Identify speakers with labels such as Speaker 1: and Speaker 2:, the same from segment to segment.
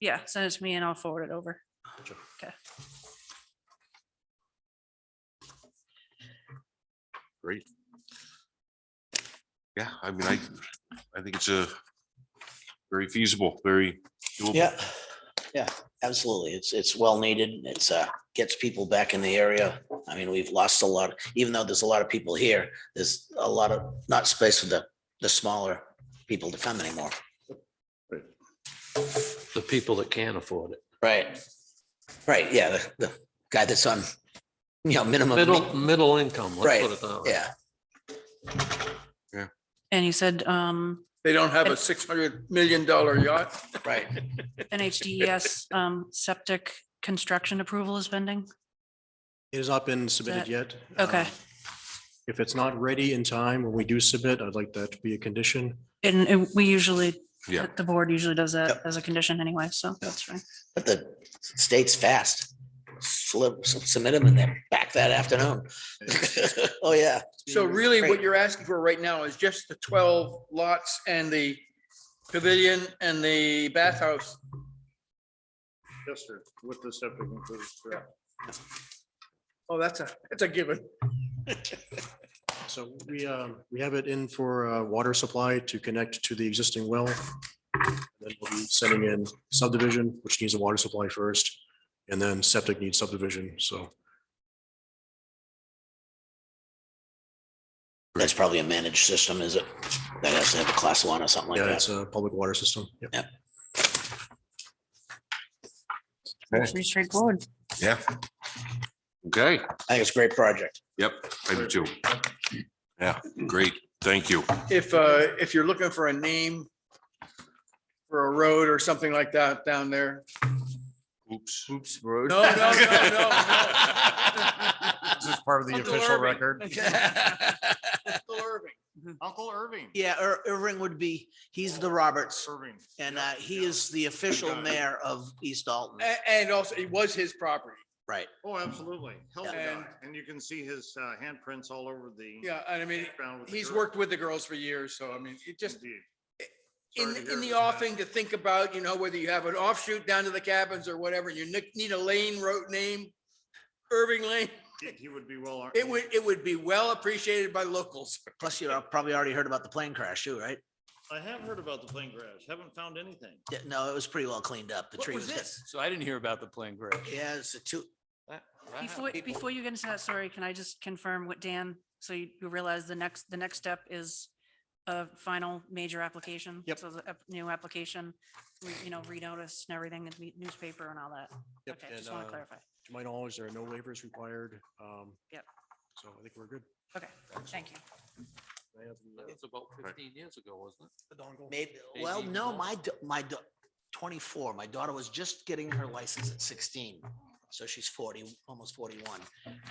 Speaker 1: Yeah, send it to me and I'll forward it over.
Speaker 2: Great. Yeah, I mean, I, I think it's a very feasible, very doable.
Speaker 3: Yeah, yeah, absolutely. It's, it's well needed. It's, uh, gets people back in the area. I mean, we've lost a lot, even though there's a lot of people here, there's a lot of, not space for the, the smaller people to come anymore.
Speaker 4: the people that can afford it.
Speaker 3: Right. Right, yeah, the, the guy that's on, you know, minimum.
Speaker 4: Middle, middle income, let's
Speaker 3: Right,
Speaker 4: put it that way.
Speaker 3: Yeah,
Speaker 1: And you said um
Speaker 5: They don't have a six hundred million dollar yacht.
Speaker 3: right.
Speaker 1: NHDES um septic construction approval is pending?
Speaker 6: It has not been submitted yet.
Speaker 1: Okay.
Speaker 6: Um, If it's not ready in time, when we do submit, I'd like that to be a condition.
Speaker 1: And and we usually,
Speaker 2: Yeah.
Speaker 1: the board usually does that
Speaker 3: Yep.
Speaker 1: as a condition anyway, so that's fine.
Speaker 3: But the state's fast. Slip, submit them and they're back that afternoon. Oh, yeah.
Speaker 5: So really
Speaker 3: Great.
Speaker 5: what you're asking for right now is just the twelve lots and the pavilion and the bathhouse.
Speaker 6: Yes, sir, with the septic included.
Speaker 5: Oh, that's a, that's a given.
Speaker 6: So we, um, we have it in for uh, water supply to connect to the existing well. Then we'll be sending in subdivision, which needs a water supply first, and then septic needs subdivision, so.
Speaker 3: That's probably a managed system, is it? That has to have a class one or something like
Speaker 6: Yeah,
Speaker 3: that.
Speaker 6: it's a public water system. Yep.
Speaker 2: Okay.
Speaker 1: Pretty straightforward.
Speaker 2: Yeah. Okay,
Speaker 3: I think it's a great project.
Speaker 2: yep, I do too. Yeah, great, thank you.
Speaker 5: If, uh, if you're looking for a name for a road or something like that down there.
Speaker 2: Oops.
Speaker 7: Oops, Road.
Speaker 5: No, no, no, no,
Speaker 7: This is part of the
Speaker 5: Uncle
Speaker 7: official
Speaker 5: Irving.
Speaker 7: record.
Speaker 5: no. Irving.
Speaker 7: Uncle Irving.
Speaker 8: Yeah, Ir- Irving would be, he's the Roberts
Speaker 7: Irving.
Speaker 8: and uh, he is the official mayor of East Dalton.
Speaker 5: A- And also it was his property.
Speaker 3: Right.
Speaker 7: Oh, absolutely. Hell yeah.
Speaker 5: And-
Speaker 7: And you can see his uh, handprints all over the.
Speaker 5: Yeah, and I mean,
Speaker 7: background with the
Speaker 5: he's
Speaker 7: girl.
Speaker 5: worked with the girls for years, so I mean, it just,
Speaker 7: Indeed. Sorry
Speaker 5: in,
Speaker 7: to
Speaker 5: in
Speaker 7: hear
Speaker 5: the
Speaker 7: about that.
Speaker 5: offing to think about, you know, whether you have an offshoot down to the cabins or whatever, you nick- need a lane road name, Irving Lane,
Speaker 7: He- He would be well.
Speaker 5: it would, it would be well appreciated by locals.
Speaker 8: Plus, you probably already heard about the plane crash too, right?
Speaker 7: I have heard about the plane crash. Haven't found anything.
Speaker 8: Yeah, No, it was pretty well cleaned up. The
Speaker 5: What
Speaker 8: tree
Speaker 5: was
Speaker 8: was. dead.
Speaker 5: this?
Speaker 9: So I didn't hear about the plane crash.
Speaker 8: Yeah, it's a two,
Speaker 1: Before, before you get into that story, can I just confirm what Dan, so you you realize the next, the next step is a final major application?
Speaker 6: Yep.
Speaker 1: So the ap- new application, re- you know, renotice and everything, the newspaper and all that.
Speaker 6: Yep,
Speaker 1: Okay,
Speaker 6: and,
Speaker 1: just want to
Speaker 6: uh,
Speaker 1: clarify.
Speaker 6: To my knowledge, there are no waivers required. um,
Speaker 1: Yep.
Speaker 6: So I think we're good.
Speaker 1: Okay, thank you.
Speaker 6: I have the-
Speaker 4: That was about fifteen years ago, wasn't
Speaker 6: the dongle.
Speaker 8: maybe, well,
Speaker 4: Eighteen
Speaker 8: no,
Speaker 4: years.
Speaker 8: my, da- my da- twenty-four, my daughter was just getting her license at sixteen. So she's forty, almost forty-one.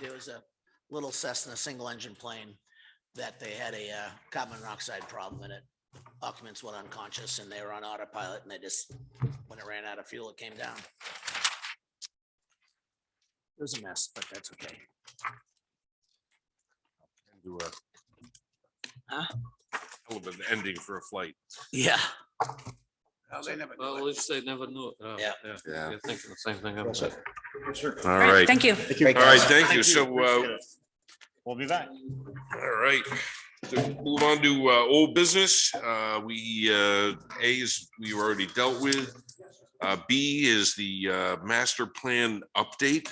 Speaker 8: There was a little Cessna single engine plane that they had a uh, carbon monoxide problem in it. Occupants went unconscious and they were on autopilot and they just, when it ran out of fuel, it came down. It was a mess, but that's okay.
Speaker 2: Do a-
Speaker 8: Huh?
Speaker 2: Hell of an ending for a flight.
Speaker 8: Yeah.
Speaker 4: it? Well, let's say never knew. it. Uh,
Speaker 8: Yeah.
Speaker 2: Yeah.
Speaker 4: You're thinking the same thing. I was.
Speaker 2: All right,
Speaker 1: Thank you.
Speaker 2: all right, thank you. So, uh,
Speaker 7: We'll be back.
Speaker 2: All right, So move on to uh, old business. Uh, We, uh, A is, we already dealt with. Uh, B is the uh, master plan update.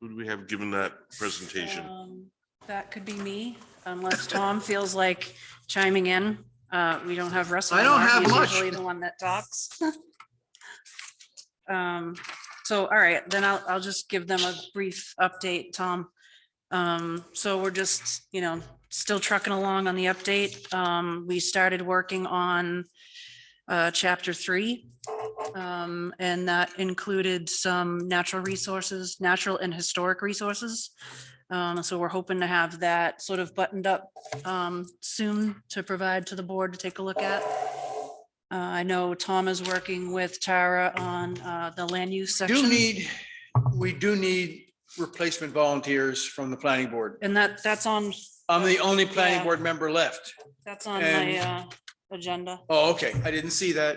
Speaker 2: Who do we have given that presentation?
Speaker 1: Um, That could be me, unless Tom feels like chiming in. Uh, we don't have Russell.
Speaker 5: I don't
Speaker 1: on.
Speaker 5: have
Speaker 1: He's
Speaker 5: much.
Speaker 1: usually The one that talks. Um, so, all right, then I'll, I'll just give them a brief update, Tom. Um, so we're just, you know, still trucking along on the update. Um, we started working on uh, chapter three. Um, and that included some natural resources, natural and historic resources. Um, so we're hoping to have that sort of buttoned up, um, soon to provide to the board to take a look at. Uh, I know Tom is working with Tara on, uh, the land use
Speaker 5: Do
Speaker 1: section.
Speaker 5: need, we do need replacement volunteers from the planning board.
Speaker 1: And that, that's on,
Speaker 5: I'm the only planning
Speaker 1: Yeah.
Speaker 5: board member left.
Speaker 1: that's on my,
Speaker 5: And-
Speaker 1: uh, agenda.
Speaker 5: Oh, okay. I didn't see that.